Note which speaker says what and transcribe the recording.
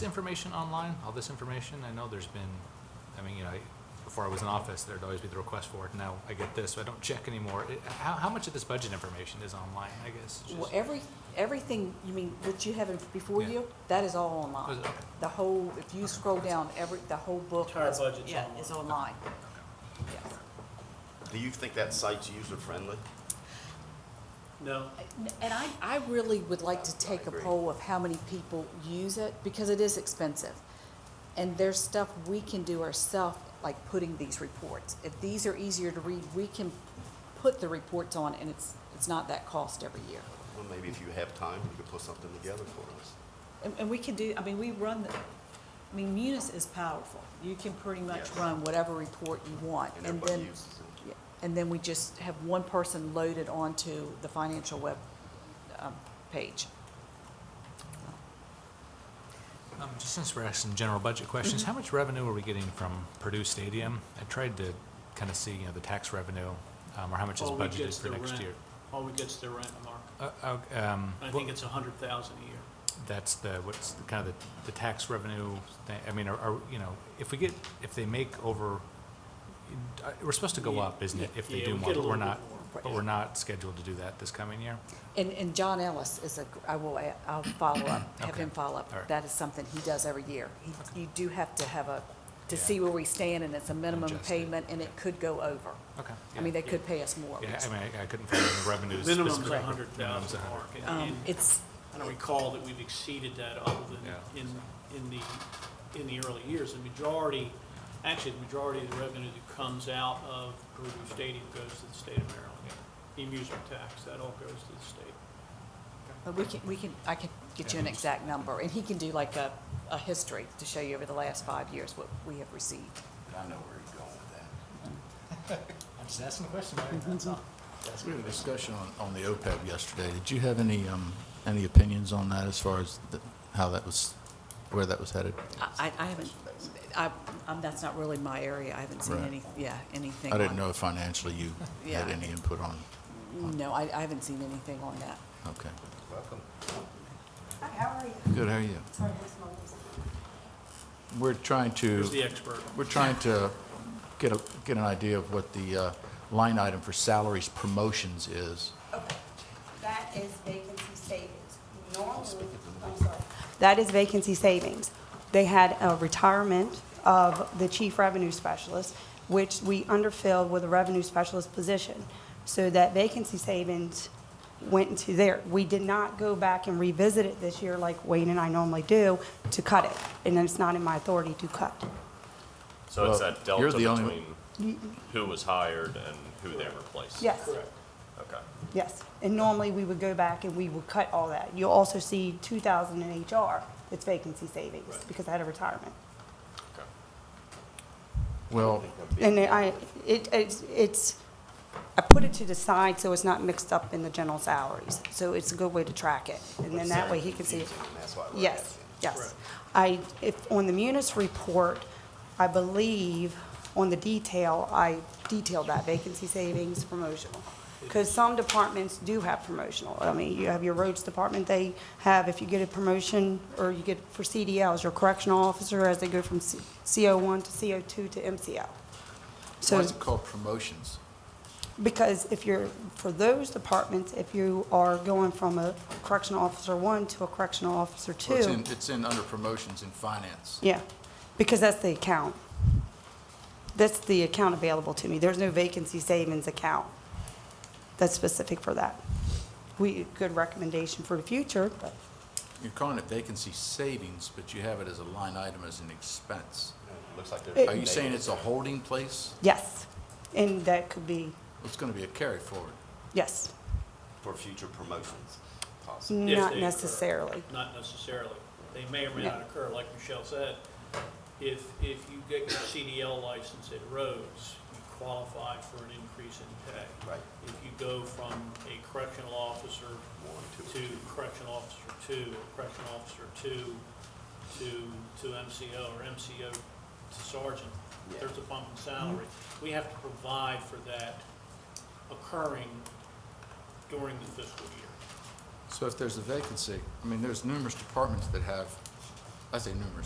Speaker 1: information online, all this information? I know there's been, I mean, you know, I- before I was in office, there'd always be the request for it. Now I get this, so I don't check anymore. It- How, how much of this budget information is online, I guess? It's
Speaker 2: Well,
Speaker 1: just-
Speaker 2: every, everything, you mean, that you have in- before
Speaker 1: Yeah.
Speaker 2: you, that is all
Speaker 1: Oh, is
Speaker 2: online.
Speaker 1: it? Okay.
Speaker 2: The whole, if you scroll down, every, the whole book.
Speaker 3: Entire
Speaker 2: is-
Speaker 3: budget's
Speaker 2: Yeah,
Speaker 3: online.
Speaker 2: is online. Yes.
Speaker 4: Do you think that site's user-friendly?
Speaker 3: No,
Speaker 2: And I, I really would like to take a
Speaker 4: agree.
Speaker 2: poll of how many people use it, because it is expensive. And there's stuff we can do ourselves, like putting these reports. If these are easier to read, we can put the reports on, and it's, it's not that cost every year.
Speaker 4: Well, maybe if you have time, you could put something together for us.
Speaker 5: And, and we can do, I mean, we run, the I mean, Munis is powerful. You can pretty much
Speaker 4: Yes.
Speaker 5: run.
Speaker 2: Run whatever report you want,
Speaker 4: And
Speaker 2: and
Speaker 4: everybody
Speaker 2: then,
Speaker 4: uses it.
Speaker 2: Yeah, and then we just have one person loaded onto the financial web, um, page.
Speaker 1: Um, Just since we're asking general budget questions,
Speaker 3: Mm-hmm.
Speaker 1: how much revenue are we getting from Purdue Stadium? I tried to kind of see, you know, the tax revenue, um, or how much is
Speaker 3: all we
Speaker 1: budgeted
Speaker 3: get's
Speaker 1: for
Speaker 3: the
Speaker 1: next
Speaker 3: rent.
Speaker 1: year.
Speaker 3: All we get's the rent, Mark.
Speaker 1: Uh, uh, um,
Speaker 3: I
Speaker 1: what-
Speaker 3: think it's a hundred thousand a year.
Speaker 1: that's the, what's the, kind of the, the tax revenue, thing. I mean, are, are, you know, if we get, if they make over, uh, we're supposed to go
Speaker 3: Yeah,
Speaker 1: up, isn't it, if they
Speaker 3: yeah,
Speaker 1: do
Speaker 3: we
Speaker 1: more,
Speaker 3: get a
Speaker 1: but we're
Speaker 3: little
Speaker 1: not,
Speaker 3: bit more.
Speaker 1: but we're not scheduled to do that this coming year?
Speaker 2: And, and John Ellis is a, I will, a- I'll follow up, have
Speaker 1: Okay.
Speaker 2: him follow up.
Speaker 1: All right.
Speaker 2: That is something he does every year. He- You do have to have a, to
Speaker 1: Yeah.
Speaker 2: see where we stand, and it's a minimum
Speaker 1: Adjust it.
Speaker 2: payment, and it could go over.
Speaker 1: Okay.
Speaker 2: I mean, they
Speaker 1: yeah.
Speaker 2: could pay us more.
Speaker 3: Oh,
Speaker 1: Yeah, I mean, I- I couldn't find the revenues.
Speaker 3: Minimum's
Speaker 1: specifically.
Speaker 3: a hundred
Speaker 1: Minimum's a
Speaker 3: thousand,
Speaker 1: hundred.
Speaker 3: Mark. and-
Speaker 2: Um,
Speaker 3: and
Speaker 2: it's,
Speaker 3: I don't recall that we've exceeded that other
Speaker 1: Yeah.
Speaker 3: than in, in the, in the early years. The majority, actually, the majority of the revenue that comes out of Purdue Stadium goes to the state of Maryland. The amusement tax, that all goes to the state.
Speaker 2: but we can, we can, I can get you an exact number, and he can do like a, a history to show you over the last five years what we have received.
Speaker 4: I know where you're going with that.
Speaker 1: I'm just asking a question, Larry, that's all.
Speaker 6: We had a discussion on, on the OPEB yesterday. Did you have any, um, any opinions on that as far as the, how that was, where that was headed?
Speaker 2: I, I haven't, I, um, that's not really my area. I haven't seen
Speaker 6: Right.
Speaker 2: any, yeah, anything.
Speaker 6: I
Speaker 2: on-
Speaker 6: didn't know if financially you had
Speaker 2: Yeah.
Speaker 6: any input on,
Speaker 2: No, I, I haven't seen anything on that.
Speaker 6: okay.
Speaker 4: Welcome.
Speaker 7: Hi, how are you?
Speaker 6: Good, how are you?
Speaker 7: Sorry, where's my voice?
Speaker 6: We're trying to,
Speaker 3: Who's the expert?
Speaker 6: we're trying to get a, get an idea of what the, uh, line item for salaries promotions is.
Speaker 7: Okay, that is vacancy savings. Normally, I'm sorry. That is vacancy savings. They had a retirement of the chief revenue specialist, which we underfilled with a revenue specialist position. So that vacancy savings went into there. We did not go back and revisit it this year like Wayne and I normally do to cut it. And it's not in my authority to cut.
Speaker 8: So
Speaker 6: Well,
Speaker 8: it's that
Speaker 6: you're
Speaker 8: delta
Speaker 6: the only-
Speaker 8: between who was hired and who they replaced?
Speaker 7: Yes.
Speaker 8: Okay.
Speaker 7: Yes, and normally we would go back and we would cut all that. You'll also see two thousand in HR, it's vacancy savings, because I had a retirement.
Speaker 8: Okay.
Speaker 6: Well,
Speaker 7: And I, it, it's, it's, I put it to the side so it's not mixed up in the general salaries. So it's a good way to track it, and then that way he can see it.
Speaker 4: Confusing, That's why we're
Speaker 7: Yes,
Speaker 4: asking.
Speaker 7: yes. I, if, on the Munis report, I believe, on the detail, I detailed that vacancy savings promotional. Because some departments do have promotional. I mean, you have your roads department, they have, if you get a promotion, or you get for CDLs, your correctional officer, as they go from C- CO1 to CO2 to MCL.
Speaker 6: why
Speaker 7: So,
Speaker 6: is it called promotions?
Speaker 7: because if you're, for those departments, if you are going from a correctional officer one to a correctional officer two.
Speaker 6: Well, It's in, it's in under promotions in finance.
Speaker 7: Yeah, because that's the account. That's the account available to me. There's no vacancy savings account that's specific for that. We, good recommendation for the future, but
Speaker 6: You're calling it vacancy savings, but you have it as a line item as an expense.
Speaker 4: Looks like
Speaker 7: It-
Speaker 4: there's.
Speaker 6: Are you saying it's a holding place?
Speaker 7: yes. And that could be,
Speaker 6: It's going to be a carry forward.
Speaker 7: yes,
Speaker 4: For future promotions, possibly.
Speaker 3: If
Speaker 7: not
Speaker 3: they occur.
Speaker 7: necessarily.
Speaker 3: Not necessarily. They may or may
Speaker 7: No.
Speaker 3: not occur, like Michelle said. If, if you get your CDL license at Rhodes, you qualify for an increase in pay.
Speaker 4: Right.
Speaker 3: If you go from a correctional officer
Speaker 4: One,
Speaker 3: to correctional officer two, or correctional officer two to, to MCO, or MCO to sergeant,
Speaker 4: Yeah.
Speaker 3: there's a bump in salary.
Speaker 7: Mm-hmm.
Speaker 3: We have to provide for that occurring during the fiscal year.
Speaker 6: So if there's a vacancy, I mean, there's numerous departments that have I say numerous